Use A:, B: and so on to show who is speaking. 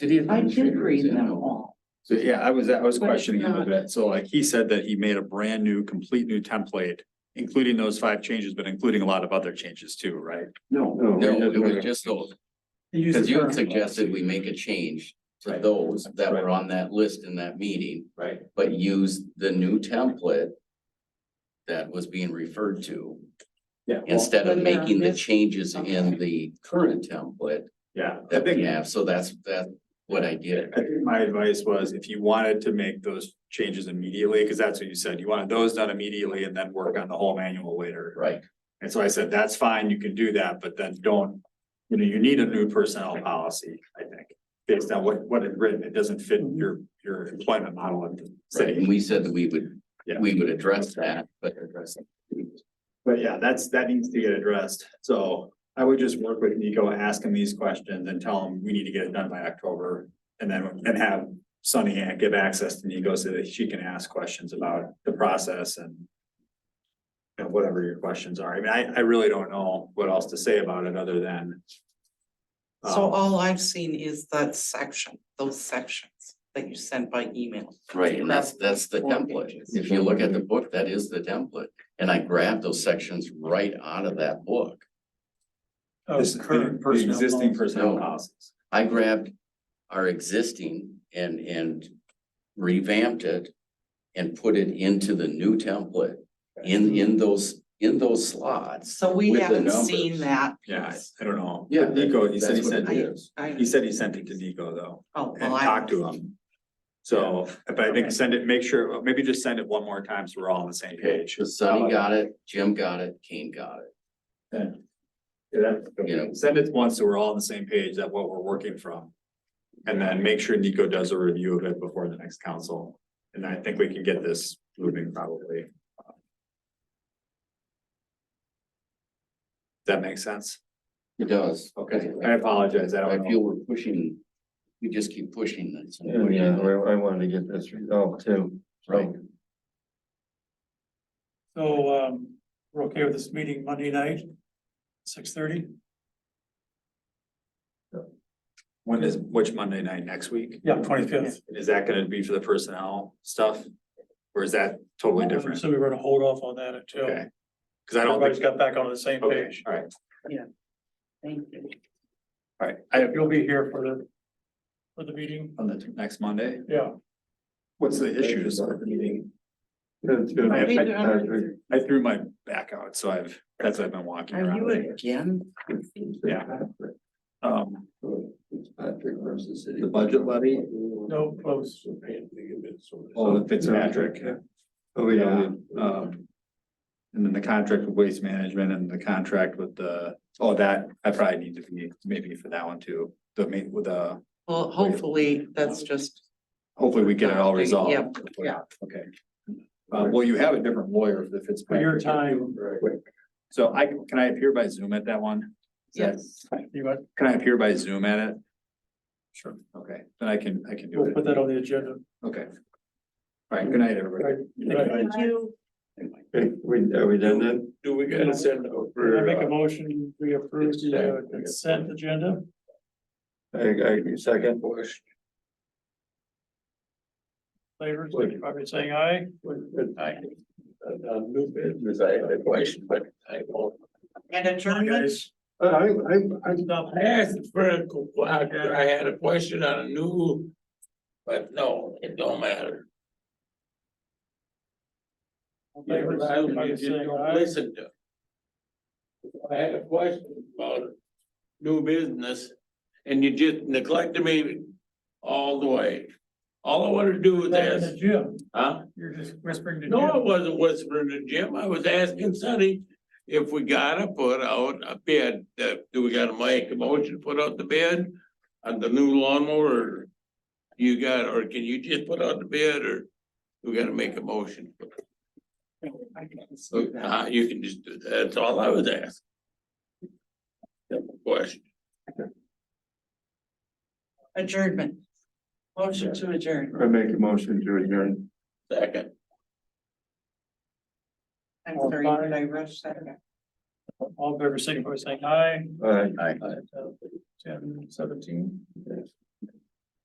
A: Did he?
B: I did read them all.
C: So, yeah, I was, I was
B: But it's
C: questioning him a
B: not-
C: bit. So like he said that he made a brand new, complete new template, including those five changes, but including a lot of other changes too, right?
D: No.
A: No, it was just those,
D: Use
A: because
D: the
A: you
D: current
A: had suggested we make a change to
C: Right.
A: those that
C: Right.
A: were on that list in that meeting,
C: Right.
A: but use the new template that was being referred to,
C: Yeah. well,
A: instead of
B: But yeah,
A: making the
B: this-
A: changes in the current template
C: Yeah, I
A: that we
C: think,
A: have, so that's, that's what I did.
C: I think my advice was if you wanted to make those changes immediately, because that's what you said, you wanted those done immediately and then work on the whole manual later.
A: Right,
C: And so I said, that's fine, you can do that, but then don't, you know, you need a new personnel policy, I think. Based on what, what is written, it doesn't fit your, your employment model at the
A: right,
C: city.
A: and we said that we would,
C: Yeah.
A: we would address that, but address
C: But yeah, that's, that needs to get addressed. So I would just work with Nico, ask him these questions and tell him we need to get it done by October. And then, and have Sunny give access to Nico so that she can ask questions about the process and and whatever your questions are. I mean, I, I really don't know what else to say about it other than
B: So
C: um,
B: all I've seen is that section, those sections that you sent by email.
A: Right, and that's, that's the
B: Four
A: template.
B: pages.
A: If you look at the book, that is the template. And I grabbed those sections right out of that book.
E: uh,
C: This, the, the existing personnel
A: No.
C: policies.
A: I grabbed our existing and, and revamped it and put it into the new template in, in those, in those slots.
B: So we
A: With the
B: haven't seen
A: numbers.
B: that.
C: Yeah, I, I don't know.
A: Yeah,
C: But Nico, he said, he
A: that's what
C: said,
A: it is.
B: I-
C: he said he sent it to Nico though,
B: Oh,
C: and
B: well, I.
C: talked to him. So, but I think send it, make sure, maybe just send it one more time so we're all on the same page.
A: So Sonny
C: uh,
A: got it, Jim got it, Kane got it.
C: Yeah, that's-
A: Yeah.
C: Send it once so we're all on the same page that what we're working from. And then make sure Nico does a review of it before the next council. And I think we can get this moving probably. That makes sense?
A: It does.
C: Okay, I apologize. I
A: I
C: don't know.
A: feel we're pushing, we just keep pushing this.
D: Oh, Yeah, I, I wanted to get this resolved too. so.
A: Right.
E: So, um, we're okay with this meeting Monday night, six thirty?
C: When is, which Monday night, next week?
E: Yeah, twenty-fifth.
C: Is that gonna be for the personnel stuff? Or is that totally different?
E: So we were gonna hold off on that until
C: Okay. Cause I don't
E: everybody's
C: think,
E: got back onto the same
C: okay,
E: page.
C: all right,
B: Thank you.
C: all right. I have
E: You'll be here for the, for the meeting,
C: on the t- next Monday.
E: yeah.
C: What's the issues of the meeting?
D: That's good.
C: I-
B: Peter, I'm-
C: I threw my back out, so I've, that's I've been walking
B: Are you
C: around.
B: again?
C: Yeah. Um,
D: Patrick versus city. The budget levy?
E: No, close.
C: oh, the Fitzpatrick,
D: Oh,
C: yeah,
D: yeah.
C: um. And then the contract with waste management and the contract with the, oh, that, I probably need to be maybe for that one too. The ma- with the,
B: Well, hopefully, that's just,
C: hopefully we get it all resolved.
B: Yeah, yeah.
C: Okay. Uh, well, you have a different lawyer for the
E: For
C: Fitzpatrick.
E: your time,
C: So I, can I appear by Zoom at that one? Is that-
B: yes,
E: you might,
C: Can I appear by Zoom at it? Sure. Okay, then I can, I can do
E: we'll
C: it.
E: put that on the agenda.
C: Okay. All right, good night, everybody.
E: Right, right.
B: thank you.
D: Okay, we, are we done then?
F: Do we gotta send
E: Can I
F: over,
E: make a
F: uh,
E: motion, we approve the uh, consent agenda?
D: I, I, second.
E: Favors, I've been saying aye.
F: I- a, a new business, I had a question, but I don't.
B: And adjournment,
D: I, I, I.
E: Stop.
F: I asked the first, I had a question on a new, but no, it don't matter.
E: Favors,
F: I
E: signify by
F: was just
E: saying
F: don't
E: aye.
F: listen to. it. I had a question about new business and you just neglected me all the way. All I wanna do is
E: That's
F: ask,
E: the gym.
F: huh?
E: You're just whispering to
F: No, I
E: Jim.
F: wasn't whispering to Jim. I was asking Sonny if we gotta put out a bid, uh, do we gotta make a motion, to put out the bid? On the new lawnmower, or you got, or can you just put out the bid, or we gotta make a motion?
B: I can see that.
F: Uh, you can just do, that. that's all I was asking. Simple Question,
B: adjournment. Motion to adjourn,
D: I make a motion to adjourn.
F: second.
B: I'm sorry, did I rush that?
E: All in favor, signify by saying aye.
D: All right.
E: Ten seventeen.